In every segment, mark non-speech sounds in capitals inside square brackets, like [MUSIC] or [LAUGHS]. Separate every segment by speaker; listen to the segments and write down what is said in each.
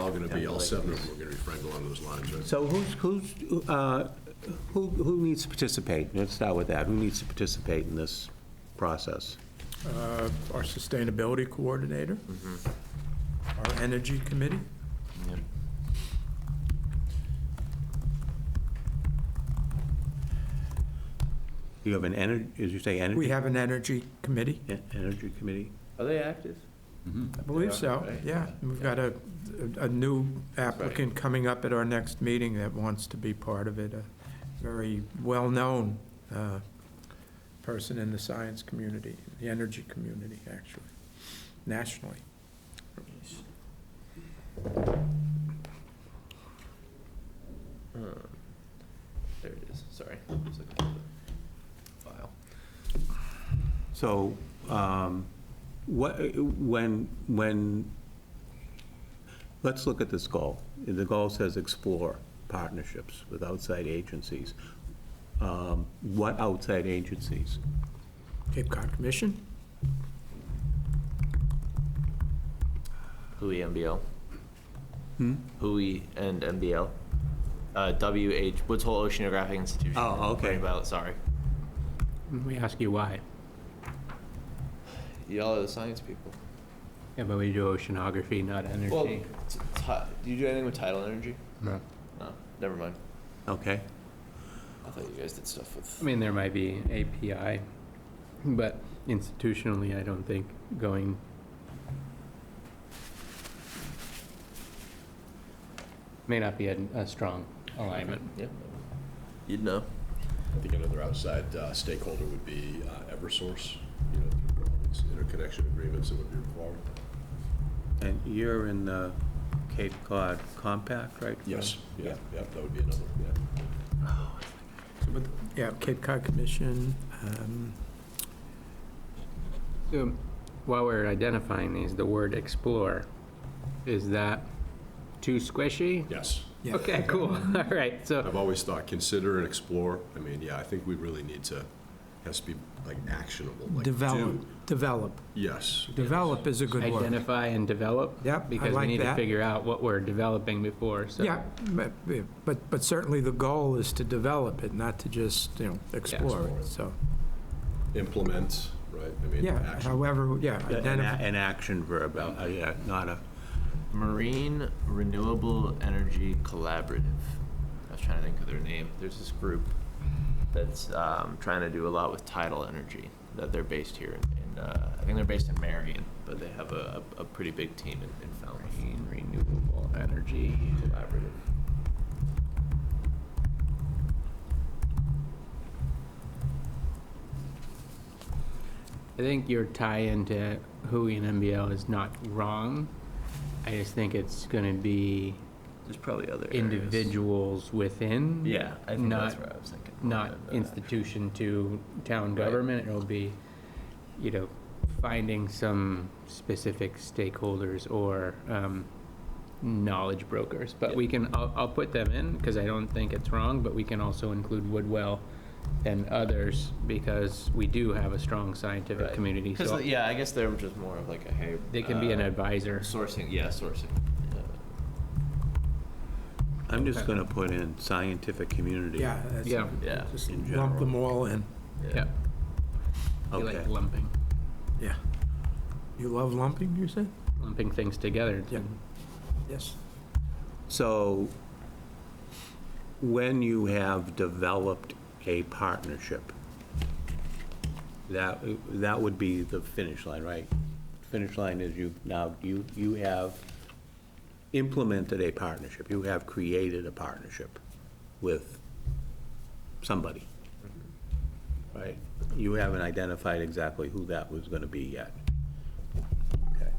Speaker 1: all going to be, all seven of them are going to be Frankel on those lines, right?
Speaker 2: So who's, who's, uh, who, who needs to participate? Let's start with that. Who needs to participate in this process?
Speaker 3: Uh, Our sustainability coordinator, our energy committee.
Speaker 2: You have an energy, as you say, energy?
Speaker 3: We have an energy committee,
Speaker 2: en- Energy committee?
Speaker 4: Are they active?
Speaker 3: I believe so,
Speaker 4: Right.
Speaker 3: yeah. We've got a, a new applicant coming up at our next meeting that wants to be part of it, a very well-known uh, person in the science community, the energy community, actually, nationally.
Speaker 4: Um, There it is, sorry. I was looking for the File.
Speaker 2: So, um, what, when, when, let's look at this goal. The goal says explore partnerships with outside agencies. Um, What outside agencies?
Speaker 3: Cape Cod Commission?
Speaker 4: Hui MBL. Hui and MBL. Uh, WH, Woods Hole Oceanographic Institution.
Speaker 2: Oh, okay.
Speaker 4: Sorry about- sorry.
Speaker 5: We ask you why.
Speaker 4: Y'all are the science people.
Speaker 5: Yeah, but we do oceanography, not
Speaker 4: Well,
Speaker 5: energy.
Speaker 4: t- ti- do you do anything with tidal energy?
Speaker 5: No.
Speaker 4: No, never mind.
Speaker 2: Okay?
Speaker 4: I thought you guys did stuff
Speaker 5: I
Speaker 4: with.
Speaker 5: mean, there might be API, but institutionally, I don't think going, may not be a, a strong alignment.
Speaker 4: Yeah. You'd know.
Speaker 1: I think another outside uh, stakeholder would be uh, Eversource, you know, through all these interconnection agreements that would be required.
Speaker 2: And you're in the Cape Cod Compact, right?
Speaker 1: Yes, yeah, yeah, that would be another, yeah.
Speaker 3: So, but- Yeah, Cape Cod Commission, um,
Speaker 5: So, While we're identifying these, the word explore, is that too squishy?
Speaker 1: Yes.
Speaker 3: yeah.
Speaker 5: Okay, cool, [LAUGHS] all right, so,
Speaker 1: I've always thought, consider and explore. I mean, yeah, I think we really need to, has to be like actionable, like do.
Speaker 3: Develop, develop.
Speaker 1: Yes.
Speaker 3: Develop is a good word.
Speaker 5: identify and develop?
Speaker 3: Yep, I
Speaker 5: Because we
Speaker 3: like
Speaker 5: need to
Speaker 3: that.
Speaker 5: figure out what we're developing before, so.
Speaker 3: Yeah, but- but, but certainly the goal is to develop it, not to just, you know, explore
Speaker 1: explore
Speaker 3: it,
Speaker 1: it.
Speaker 3: so.
Speaker 1: Implement, right? I mean,
Speaker 3: Yeah,
Speaker 1: action.
Speaker 3: however, yeah,
Speaker 2: An,
Speaker 3: identify,
Speaker 2: a- an action verb, uh, uh, yeah, not a,
Speaker 4: Marine Renewable Energy Collaborative. I was trying to think of their name. There's this group that's um, trying to do a lot with tidal energy. That they're based here, in, in, uh, I think they're based in Marion, but they have a, a, a pretty big team in, in Falmouth.
Speaker 5: Marine Renewable Energy
Speaker 4: Collaborative.
Speaker 5: I think your tie into Hui and MBL is not wrong. I just think it's gonna be
Speaker 4: There's probably other areas.
Speaker 5: individuals within.
Speaker 4: Yeah, I think that's
Speaker 5: not-
Speaker 4: where I was thinking.
Speaker 5: Not
Speaker 4: Rather than the-
Speaker 5: institution to town
Speaker 4: Right.
Speaker 5: government. It'll be, you know, finding some specific stakeholders or um, knowledge brokers. But
Speaker 4: Yeah.
Speaker 5: we can, I'll, I'll put them in because I don't think it's wrong, but we can also include Woodwell and others because we do have a strong scientific
Speaker 4: Right.
Speaker 5: community.
Speaker 4: 'Cause,
Speaker 5: So
Speaker 4: yeah, I guess they're just more of like a hey.
Speaker 5: they can be an
Speaker 4: uh,
Speaker 5: advisor.
Speaker 4: Sourcing, yeah, sourcing.
Speaker 2: I'm just gonna put in scientific community.
Speaker 3: yeah,
Speaker 5: Yeah,
Speaker 3: that's-
Speaker 4: Yeah.
Speaker 3: just
Speaker 2: In
Speaker 3: lump
Speaker 2: general.
Speaker 3: them all in,
Speaker 5: yeah. We
Speaker 2: Okay,
Speaker 5: like lumping,
Speaker 3: yeah. You love lumping, you said?
Speaker 5: lumping things together.
Speaker 3: Yeah. Yes.
Speaker 2: so when you have developed a partnership, that, that would be the finish line, right? Finish line is you, now, you, you have implemented a partnership, you have created a partnership with somebody, right? You haven't identified exactly who that was gonna be yet. Okay.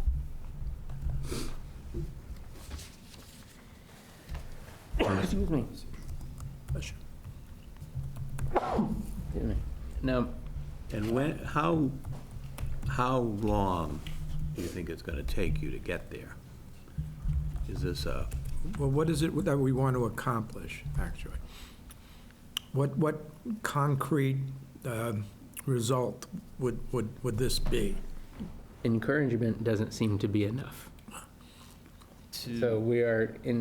Speaker 5: Excuse me. Excuse me. Now,
Speaker 2: And when, how, how long do you think it's gonna take you to get there? Is this a,
Speaker 3: Well, what is it that we want to accomplish, actually? What, what concrete um, result would, would, would this be?
Speaker 5: encouragement doesn't seem to be enough.
Speaker 4: to.
Speaker 5: So we are in